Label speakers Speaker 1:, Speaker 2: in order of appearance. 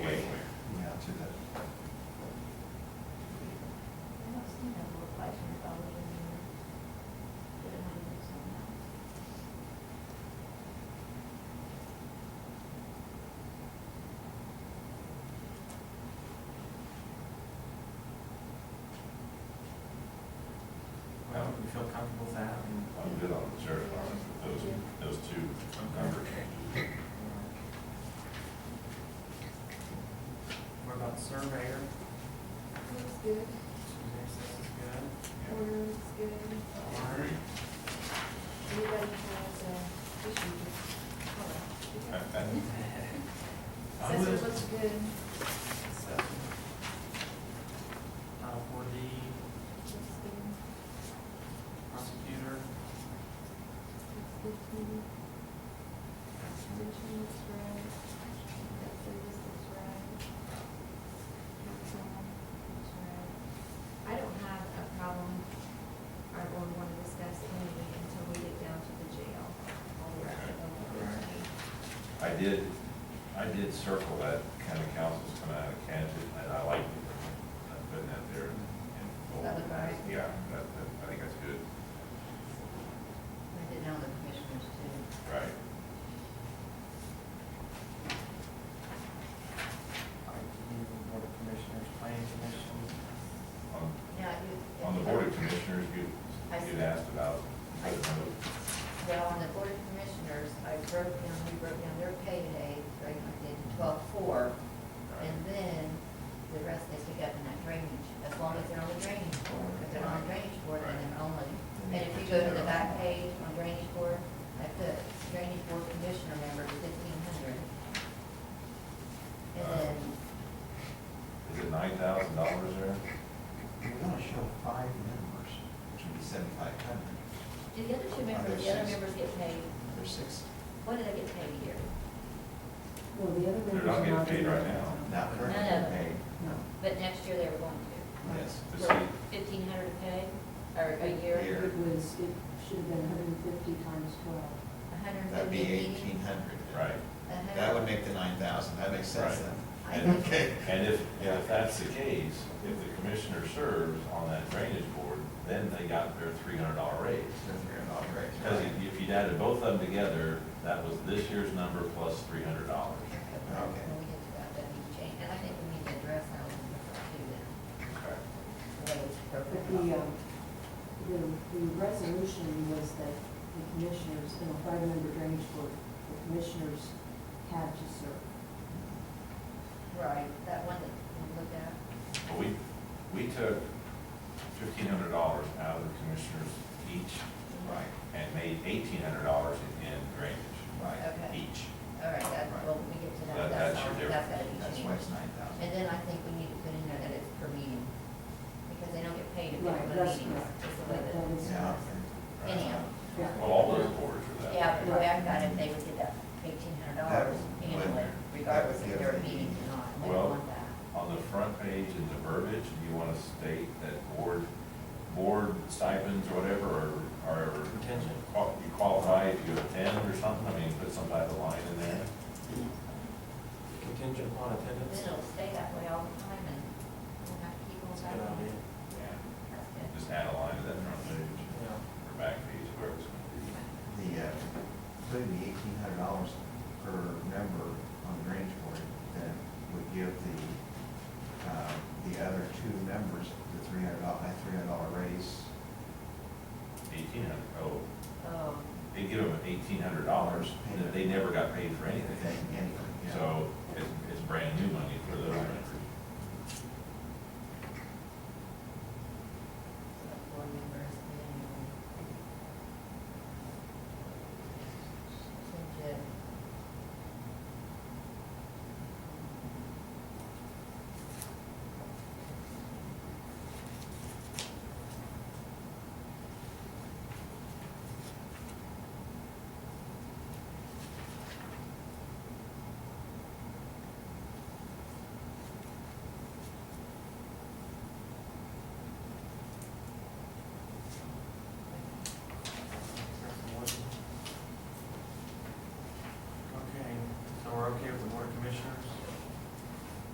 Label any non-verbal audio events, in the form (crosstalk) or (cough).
Speaker 1: surveyor.
Speaker 2: Looks good,
Speaker 1: Suzanne says it's good.
Speaker 2: order looks good.
Speaker 1: All
Speaker 2: (laughs)
Speaker 1: right.
Speaker 2: Anybody has, uh, issues? All right.
Speaker 1: I
Speaker 2: Says
Speaker 1: would-
Speaker 2: it looks good.
Speaker 1: so, uh, for the
Speaker 2: Looks good.
Speaker 1: prosecutor,
Speaker 2: Looks good to me. Mention looks right. That service looks right. Council looks right. I don't have a problem, I don't want to discuss any until we get down to the jail. All the rest of them look good to me.
Speaker 3: I did, I did circle that county council's coming out of Kansas, and I liked it. I'm putting that there and. and-
Speaker 4: That was right.
Speaker 3: Yeah, that, that, I think that's good,
Speaker 4: Write it down the commissioners too.
Speaker 3: right?
Speaker 1: I believe the board of commissioners, planning commission,
Speaker 3: On,
Speaker 4: Yeah, you.
Speaker 3: on the board of commissioners, you,
Speaker 4: I
Speaker 3: you'd
Speaker 4: see.
Speaker 3: asked about,
Speaker 4: I Well, on the board of commissioners, I broke down, we broke down their payday, right, I did twelve-four. And then the rest they pick up in that drainage, as long as they're on the drainage board. If they're on the drainage board, then they're only. And if you go to the back page on drainage board, I put drainage board commissioner member fifteen hundred. And then,
Speaker 3: is it nine thousand dollars there?
Speaker 5: You're gonna show five members, which would be seventy-five hundred.
Speaker 4: do the other two members, the other members get paid?
Speaker 5: There's six,
Speaker 4: What do they get paid a year?
Speaker 6: Well, the other
Speaker 3: They're
Speaker 6: members
Speaker 3: not
Speaker 6: are
Speaker 3: getting
Speaker 6: not.
Speaker 3: paid right
Speaker 6: getting
Speaker 3: now.
Speaker 6: paid.
Speaker 5: not currently
Speaker 4: None of
Speaker 5: paid.
Speaker 4: them.
Speaker 6: No.
Speaker 4: But next year they were going to.
Speaker 5: Yes.
Speaker 3: To
Speaker 4: So
Speaker 3: see,
Speaker 4: fifteen hundred to pay, or a year,
Speaker 5: Year.
Speaker 6: It was, it should have been hundred and fifty times twelve.
Speaker 4: a hundred and
Speaker 5: That'd be
Speaker 4: fifty.
Speaker 5: eighteen hundred.
Speaker 3: right,
Speaker 5: That would make the nine thousand, that makes sense
Speaker 3: Right.
Speaker 5: then.
Speaker 4: I (laughs)
Speaker 5: And-
Speaker 4: think-
Speaker 5: Okay.
Speaker 3: and if,
Speaker 5: Yeah.
Speaker 3: if that's the case, if the commissioner serves on that drainage board, then they got their three hundred dollar raise.
Speaker 5: It's been three and a half, right?
Speaker 3: Because if- if you'd added both of them together, that was this year's number plus three hundred dollars.
Speaker 4: When we get to that, that needs to change, and I think we need to address that one before we do that,
Speaker 3: Okay.
Speaker 4: the way it's
Speaker 6: But
Speaker 4: broken
Speaker 6: the,
Speaker 4: up.
Speaker 6: um, the, the resolution was that the commissioners, in a five-member drainage board, the commissioners had to serve.
Speaker 4: Right, that one that we looked at,
Speaker 3: But we, we took fifteen hundred dollars out of the commissioners each
Speaker 5: Right,
Speaker 3: and made eighteen hundred dollars in in drainage
Speaker 5: right.
Speaker 4: okay,
Speaker 3: each.
Speaker 4: all right, that, well, when we get to
Speaker 3: That-
Speaker 4: that, that's,
Speaker 3: that's your
Speaker 4: all- that's
Speaker 3: difference.
Speaker 4: gotta be
Speaker 5: That's why
Speaker 4: changed.
Speaker 5: it's nine thousand.
Speaker 4: And then I think we need to put in there that it's per meeting, because they don't get paid if they
Speaker 6: Right,
Speaker 4: have a
Speaker 6: that's
Speaker 4: meeting,
Speaker 6: correct.
Speaker 4: it's the way that,
Speaker 6: That is
Speaker 5: Yeah.
Speaker 6: correct.
Speaker 3: right?
Speaker 4: anyhow.
Speaker 6: Yeah.
Speaker 3: Well, all those boards are that.
Speaker 4: Yeah, but the way I got it, they would get that eighteen hundred dollars
Speaker 5: That would-
Speaker 4: annually, regardless if they're
Speaker 5: that would give
Speaker 4: meeting or not, they
Speaker 3: Well-
Speaker 4: want that.
Speaker 3: On the front page in the verbiage, you want to state that board, board stipends or whatever are, are.
Speaker 1: Contingent.
Speaker 3: qual- You qualify if you attend or something, I mean, put some type of line in there.
Speaker 1: contingent upon
Speaker 4: Then
Speaker 1: attendance.
Speaker 4: it'll stay that way all the time and we'll have to keep on
Speaker 1: That's a
Speaker 4: that.
Speaker 1: good idea.
Speaker 3: Yeah.
Speaker 4: That's good.
Speaker 3: Just add a line to that front page
Speaker 1: Yeah.
Speaker 3: or back page, wherever it's going to be.
Speaker 5: The, uh, putting the eighteen hundred dollars per member on the range board, then would give the, uh, the other two members the three hundred dollar, that three hundred dollar raise.
Speaker 3: Eighteen hundred, oh,
Speaker 4: Oh,
Speaker 3: they give them eighteen hundred dollars, and then they never got paid for anything.
Speaker 5: Anything, anyway, yeah.
Speaker 3: So it's, it's